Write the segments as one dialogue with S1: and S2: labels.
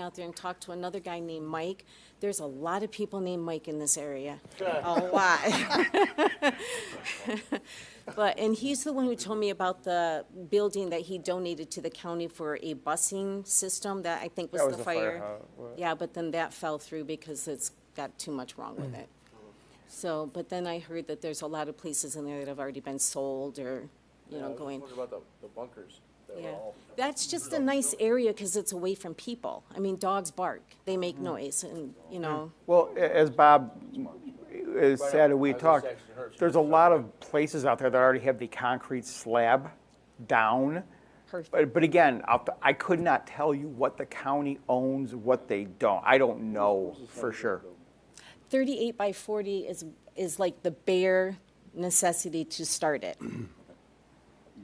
S1: out there and talked to another guy named Mike. There's a lot of people named Mike in this area. A lot. But, and he's the one who told me about the building that he donated to the county for a busing system that I think was the
S2: That was the fire
S1: fire.
S2: hall,
S1: Yeah, but then that fell through because it's got too much wrong with
S2: Mm.
S1: it. So, but then I heard that there's a lot of places in there that have already been sold or, you know, going.
S3: What Uh, about the, the bunkers? that were
S1: Yeah,
S3: all-
S1: that's just a nice area because it's away from people. I mean, dogs bark, they make noise and, you know,
S2: Well, a- as Bob has
S3: Right
S2: said,
S3: on.
S2: and we
S3: I was
S2: talked,
S3: just asking her.
S2: there's a lot of places out there that already have the concrete slab down.
S1: perfect.
S2: But, but again, I'll- I could not tell you what the county owns, what they don't. I don't know for sure.
S1: Thirty-eight by forty is, is like the bare necessity to start it.
S4: You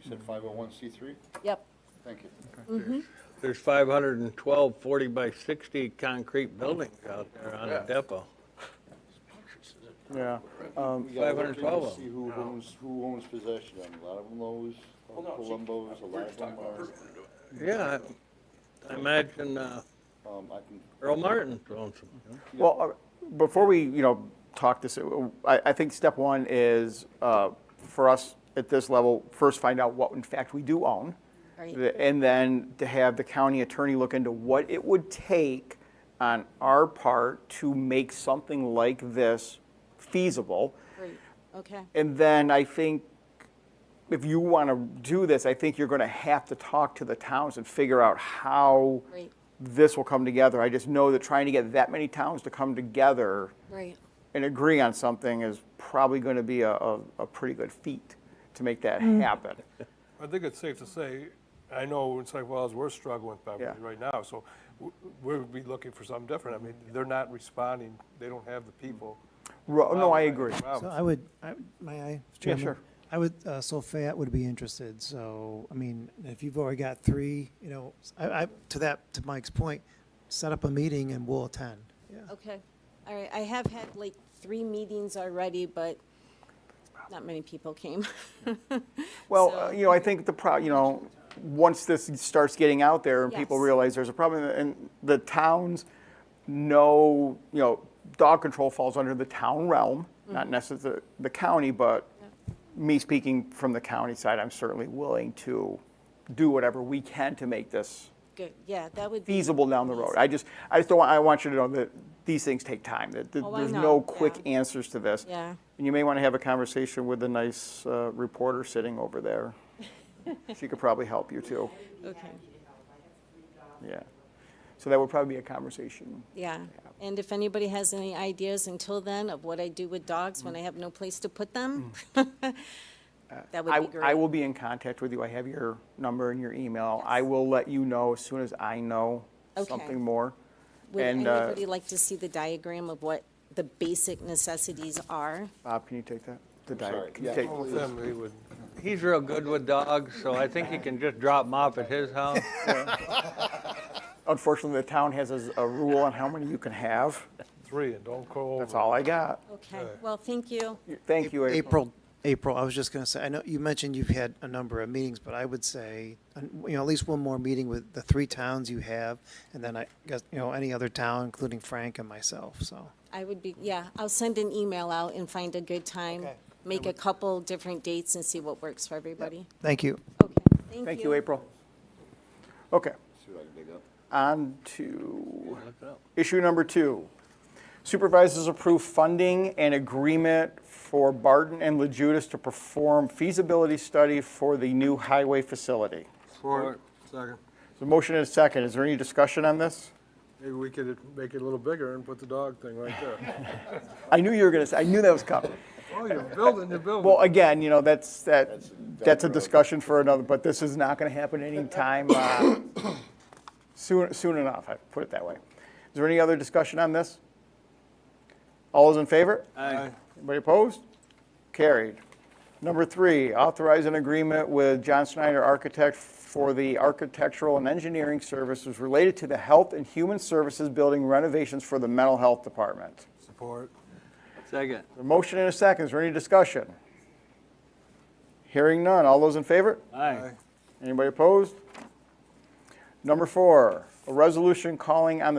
S4: said 501c3?
S1: Yep,
S4: Thank you.
S5: There's 512 40 by 60 concrete buildings out there on
S3: Yeah.
S5: the depot.
S2: Yeah.
S4: We gotta look
S5: 512
S4: into
S5: of
S4: See who owns, who owns possession of them. A lot of them uh, Lowe's, Columbus, a lot of them are,
S5: Yeah, I- I imagine uh,
S4: um, I can,
S5: Earl Martin owns them.
S2: Well, uh, before we, you know, talk this, uh, I, I think step one is uh, for us at this level, first find out what in fact we do own.
S1: Right.
S2: The- And then to have the county attorney look into what it would take on our part to make something like this feasible.
S1: great, okay.
S2: And then I think if you want to do this, I think you're going to have to talk to the towns and figure out how
S1: Right.
S2: this will come together. I just know that trying to get that many towns to come together
S1: Right,
S2: and agree on something is probably going to be a, a, a pretty good feat to make that happen.
S6: I think it's safe to say, I know in St. Wells, we're struggling with poverty
S2: Yeah.
S6: right now, so w- we'd be looking for something different. I mean, they're not responding, they don't have the people.
S2: Ro- No, I agree.
S6: Wow.
S7: So I would, I, would- may I? Chairman?
S2: sure.
S7: I would, uh, so Fayette would be interested, so, I mean, if you've already got three, you know, s- I, I- to that, to Mike's point, set up a meeting and we'll attend, yeah.
S1: okay. All right, I have had like three meetings already, but not many people came.
S2: Well,
S1: So-
S2: uh, you know, I think the pro, you know, once this starts getting out there and people
S1: Yes.
S2: realize there's a problem, and the towns know, you know, dog control falls under the town realm, not
S1: Mm-hmm.
S2: necessarily the county, but me speaking from the county side, I'm certainly willing to do whatever we can to make this
S1: Good, yeah, that would be.
S2: feasible down the road.
S1: amazing.
S2: I just, I just don't, want- I want you to know that these things take time, that that
S1: Oh, I
S2: there's
S1: know,
S2: no quick
S1: yeah.
S2: answers to this.
S1: Yeah.
S2: And you may want to have a conversation with the nice uh, reporter sitting over there. She could probably help you too,
S1: Okay.
S2: yeah. So that would probably be a conversation.
S1: Yeah, and if anybody has any ideas until then of what I do with dogs
S2: Mm.
S1: when I have no place to put them, that would
S2: I,
S1: be
S2: I will
S1: great.
S2: be in contact with you. I have your number and your email. I will let you know as soon as I know
S1: Okay.
S2: something more.
S1: Would
S2: and, uh,
S1: anybody like to see the diagram of what the basic necessities are?
S2: Bob, can you take that? The di-
S4: sorry.
S2: can you
S4: Yeah.
S2: take-
S6: Then we would,
S5: He's real good with dogs, so I think you can just drop them off at his house.
S2: Unfortunately, the town has a a rule on how many you can have.
S6: three, and don't go over.
S2: That's all I got.
S1: Okay, well, thank you.
S2: Thank you, April.
S7: April, April, I was just gonna say, I know, you mentioned you've had a number of meetings, but I would say, uh, you know, at least one more meeting with the three towns you have, and then I guess, you know, any other town, including Frank and myself, so.
S1: I would be, yeah, I'll send an email out and find a good time,
S7: Okay.
S1: make a couple different dates and see what works for everybody.
S7: Thank you.
S1: Okay,
S2: Thank you, April. Okay,
S4: see what I can dig up.
S2: on to
S5: Look it up.
S2: issue number two. Supervisors approve funding and agreement for Barton and Lejudas to perform feasibility study for the new highway facility.
S6: Support, second.
S2: So motion and a second. Is there any discussion on this?
S6: Maybe we could make it a little bigger and put the dog thing right there.
S2: I knew you were gonna say, I knew that was coming.
S6: Oh, you're building, you're building.
S2: Well, again, you know, that's, that,
S4: That's-
S2: that's a discussion for another, but this is not gonna happen anytime, uh, soon, soon enough, I put it that way. Is there any other discussion on this? All those in favor?
S5: Aye.
S2: Anybody opposed? Carried. Number three, authorize an agreement with John Snyder Architect for the architectural and engineering services related to the Health and Human Services Building renovations for the Mental Health Department.
S6: Support.
S5: Second.
S2: A motion and a second, is there any discussion? Hearing none, all those in favor?
S5: Aye.
S2: Anybody opposed? Number four, A resolution calling on the